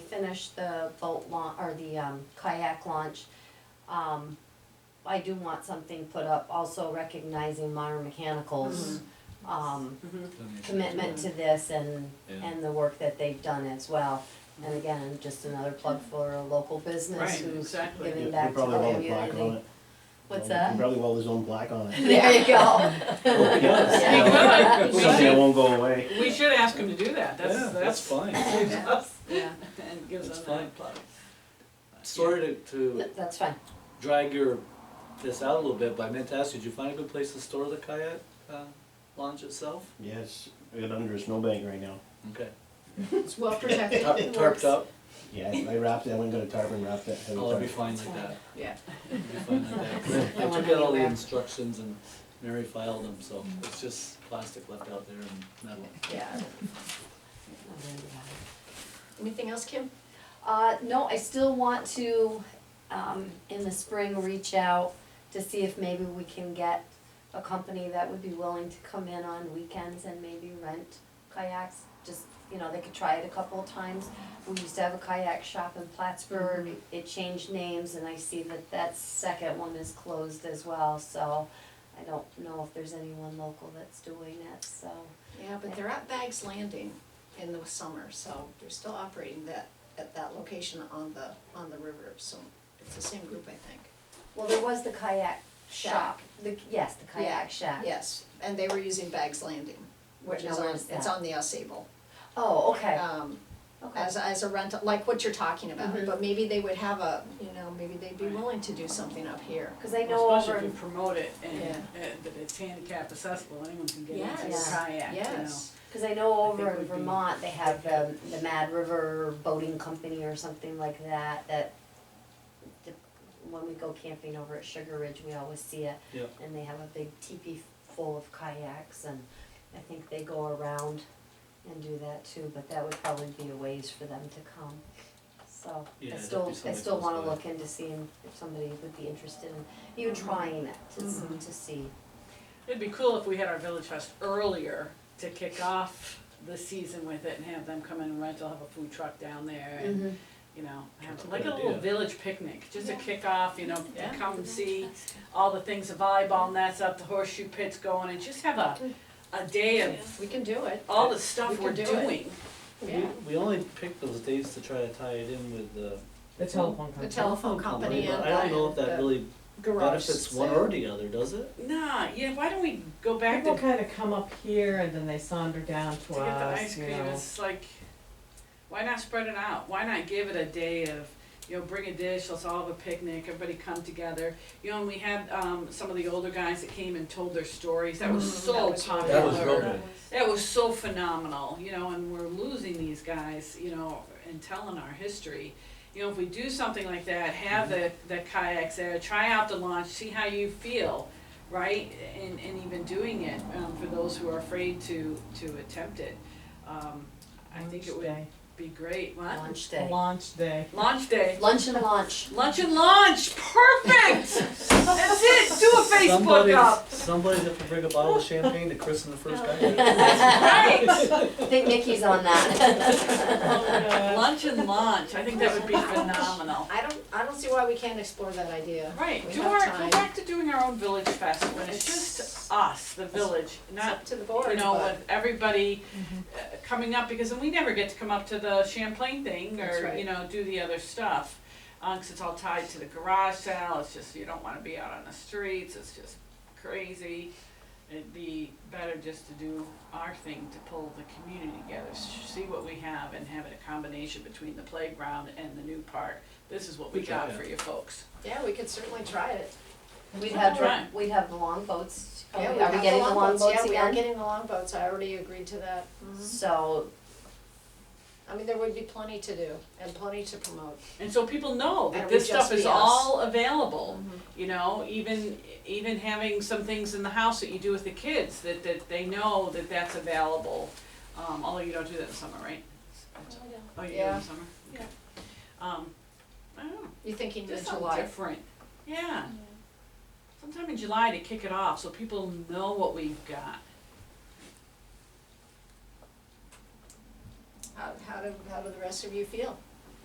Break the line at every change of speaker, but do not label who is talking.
finish the boat launch, or the um, kayak launch, um, I do want something put up also recognizing Modern Mechanical's,
Mm-hmm.
um, commitment to this and,
Yeah.
and the work that they've done as well. And again, just another plug for a local business
Right,
who's
exactly.
giving
He- he
back to
probably
the
welded black on
community.
it.
What's
He
that?
Probably weld his own black on it.
There you go.
Yeah.
He could. We
Something that
should-
won't go away.
We should ask him to do that,
Yeah,
that's,
that's
that's.
fine.
saves us
Yeah,
And gives
That's
us
fine.
that plug.
Sorry to, to
th- that's fine.
drag your, this out a little bit, but I meant to ask you, did you find a good place to store the kayak, uh, launch itself?
Yes, it under a snowbank right now.
Okay.
It's well protected.
Tarp-
It
Tarped
works.
up?
Yeah, I wrapped it, I went and got a tarp and wrapped that heavy
Oh, it'll be fine
tarp.
like that.
Yeah.
It'll be fine like that. I took out all the instructions and Mary filed them, so it's just plastic left out there and metal.
Yeah.
Anything else, Kim?
Uh, no, I still want to, um, in the spring, reach out to see if maybe we can get a company that would be willing to come in on weekends and maybe rent kayaks. Just, you know, they could try it a couple of times. We used to have a kayak shop in Plattsburgh.
Mm-hmm.
It changed names and I see that that second one is closed as well, so I don't know if there's anyone local that's doing it, so.
Yeah, but they're at Bags Landing in the summer, so they're still operating that, at that location on the, on the river, so it's the same group, I think.
Well, there was the kayak shop,
Shack.
the, yes, the kayak shack.
Yes, and they were using Bags Landing, which
Now,
is
where
on,
is
it's
that?
on the US Able.
Oh, okay,
Um,
okay.
as, as a rental, like what you're talking about,
Mhm.
but maybe they would have a, you know, maybe they'd be willing to do something up here.
Cause I know over,
Especially if you
in-
promote it and,
Yeah.
and that it's handicap accessible, anyone can get into
Yes.
a kayak, you know.
Yes,
cause I know
I think
over
would
in
be-
Vermont, they have the, the Mad River Boating Company or something like that, that the- when we go camping over at Sugar Ridge, we always see it.
Yeah.
And they have a big teepee full of kayaks and I think they go around and do that too, but that would probably be a ways for them to come. So,
Yeah,
I
that'd
still,
be
I
something
still
close
wanna
by.
look into seeing if somebody would be interested in even trying it, to, s-
Mhm.
to see.
It'd be cool if we had our Village Fest earlier to kick off the season with it and have them come in and rent, they'll have a food truck down there and,
Mhm.
Mm-hmm.
you know, have
That's a
like a
good
little
idea.
village picnic, just to kick off, you know, to
Yeah.
come and see all the things, the volleyball nets up, the horseshoe pits going, and just have a, a day of
we can do it.
all the stuff
We
we're
could do it.
doing.
Yeah.
We only picked those dates to try to tie it in with the.
The telephone
The
company.
telephone company
but
and
I don't know if
the-
that really
the garage
benefits one
sale.
or the other, does it?
Nah, yeah, why don't we go back to,
People
to
kind of come up here and then they saunder down to
get the
us,
ice
you
cream,
know.
it's like, why not spread it out? Why not give it a day of, you know, bring a dish, let's all have a picnic, everybody come together. You know, and we had, um, some of the older guys that came and told their stories, that was
Mm,
so
that was really
popular.
That was real good.
That was so phenomenal, you know, and we're losing these guys, you know, and telling our history. You know, if we do something like that, have
Mm-hmm.
the, the kayaks there, try out the launch, see how you feel, right? And, and even doing it, um, for those who are afraid to, to attempt it. Um, I think it would
Launch
be great, what?
Launch
day.
day.
Launch day.
Launch day,
Lunch and launch.
lunch and launch, perfect! That's it, do a Facebook
Somebody's-
up,
Somebody's have to bring a bottle of champagne to christen the first guy.
right?
I think Nikki's on
Oh,
that.
Lunch and launch, I think that would be phenomenal.
I don't, I don't see why we can't explore that idea.
Right,
We
do
have
our, go
time.
back to doing our own village fest, when it's
It's-
just us, the village,
It's
not,
up to the
you
board,
know,
but- Mm-hmm.
with everybody uh, coming up, because then we never get to come up to the Champlain thing,
That's
or,
right.
you know, do the other stuff. uh, 'cause it's all tied to the garage sale, it's just, you don't wanna be out on the streets, it's just crazy. It'd be better just to do our thing, to pull the community together, s- see what we have, and have it a combination between the playground and the new park. This is what we
Good
got
idea.
for you folks.
Yeah, we could certainly try it.
We'd
Right.
have, we'd have the longboats. Are
Yeah,
we
we got
getting the longboats
Yeah, we are
again?
getting the longboats, I already agreed to that.
So,
I mean, there would be plenty to do and plenty to promote.
And so people know that
And it
this
would just
stuff is
be us.
all available, you know, even, even having some things in the house that you do with the kids, that, that they know that that's available. Um, although you don't do that in the summer, right? Oh, you do it in
Yeah.
the summer? Okay. Um, I don't know,
You're thinking
just
mid-July?
something different, yeah. Sometime in July to kick it off, so people know what we've got.
How, how do, how do the rest of you feel?